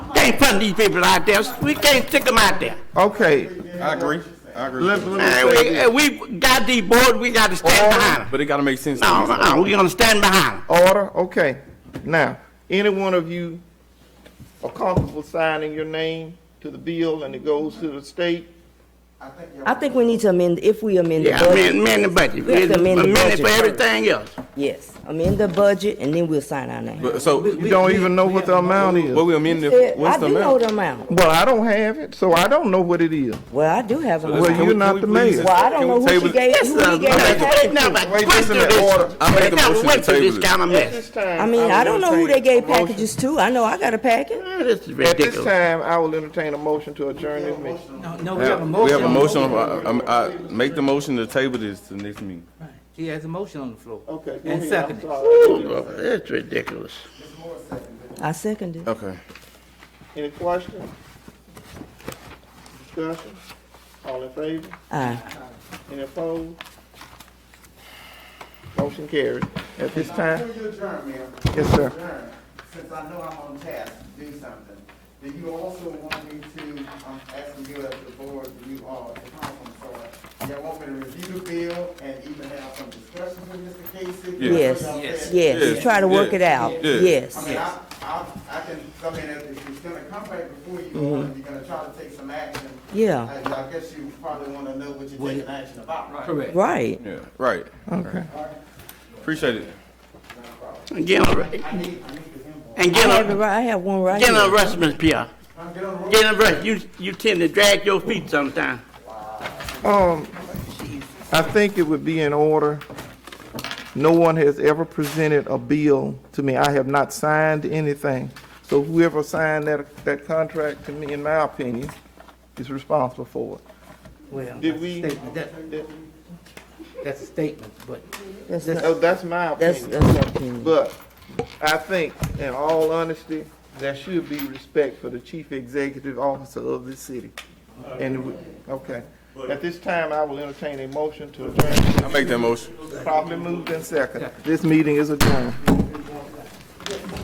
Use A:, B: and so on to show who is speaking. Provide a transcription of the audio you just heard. A: can't put these people out there. We can't stick them out there.
B: Okay,
C: I agree. I agree.
B: let, let me
A: And
B: say
A: we,
B: this.
A: and Uh, we got these boards, we got to stand behind them.
C: But it gotta make sense. to
A: No,
C: these-
A: no, we're gonna stand behind them.
B: Order, okay. Now, any one of you are comfortable signing your name to the bill and it goes to the state?
D: I think we need to amend, if we amend the
A: Yeah, amend,
D: budget,
A: amend the budget.
D: We have to amend the
A: Amend it for
D: budget.
A: everything else.
D: yes, amend the budget and then we'll sign our name.
C: But so,
B: You don't even know what the amount is.
C: what we amended,
D: Yeah, I
C: what's the
D: do know
C: amount?
D: the amount.
B: Well, I don't have it, so I don't know what it is.
D: Well, I do have an
B: Well,
D: amount.
B: you're
C: Can we-
B: not
C: can
B: the
C: we
B: mayor.
C: please-
D: Well, I don't
C: can we
D: know who
C: table
D: she
C: it?
D: gave, who he gave
A: Now,
D: the
A: They
D: package
A: never
D: to.
B: Wait, this
A: went
B: is
A: through
B: an
A: this.
B: order.
C: I
A: They
C: make a
A: never
C: motion
A: went
C: to
A: through
C: table
A: this
C: this.
A: kind of mess.
D: I mean, I don't know who they gave packages to. I know I got a package.
A: Ah, This is
B: At this
A: ridiculous.
B: time, I will entertain a motion to adjourn this meeting.
E: No, no, we have a motion.
C: We have a
E: on the
C: motion,
E: floor.
C: on- um, I, make the motion to table this to next meeting.
E: Right. He has a motion on the floor.
B: Okay, go ahead,
E: And
B: I'm
E: second it.
B: sorry.
A: Ooh, That's ridiculous.
D: I second it.
C: Okay.
B: Any questions? Discussion? All in favor?
D: Aye.
B: Any opposed? Motion carried. At this time,
F: Before you adjourn, Mayor.
B: Yes, sir.
F: Adjourn, Since I know I'm on task to do something, do you also want me to, I'm asking you as the board, you all, the council, so, y'all want me to review the bill and even have some discussions with Mr. Casey?
D: Yes,
F: Y'all said-
D: yes,
C: Yes.
D: try to work it out,
C: Yes.
D: yes.
F: I mean, I, I, I can, I mean, if it's gonna come back before you, all, and you're gonna try to take some action.
D: Mm-hmm. Yeah.
F: I I guess you probably wanna know what you're taking action about. Right.
E: Correct.
D: Right.
C: Yeah, right. Okay. Appreciate it.
A: And get on,
F: I need, I need the input.
A: and
D: I
A: get
D: have it
A: on,
D: right, I have one right
A: get
D: here.
A: on rest, Miss Pierre.
F: I'm getting on the road.
A: Get on rest. You, you tend to drag your feet sometimes.
B: um, I think it would be in order. No one has ever presented a bill to me. I have not signed anything. So whoever signed that, that contract to me, in my opinion, is responsible for it.
E: Well,
B: Did
E: that's a
B: we-
E: statement. That-
B: That-
E: That's a statement, but
D: That's,
B: Oh,
D: not-
B: that's my
D: that's,
B: opinion.
D: that's our opinion.
B: But I think, in all honesty, there should be respect for the chief executive officer of this city. And, we- okay. At this time, I will entertain a motion to adjourn.
C: I make that motion.
B: Probably moved in second. This meeting is adjourned.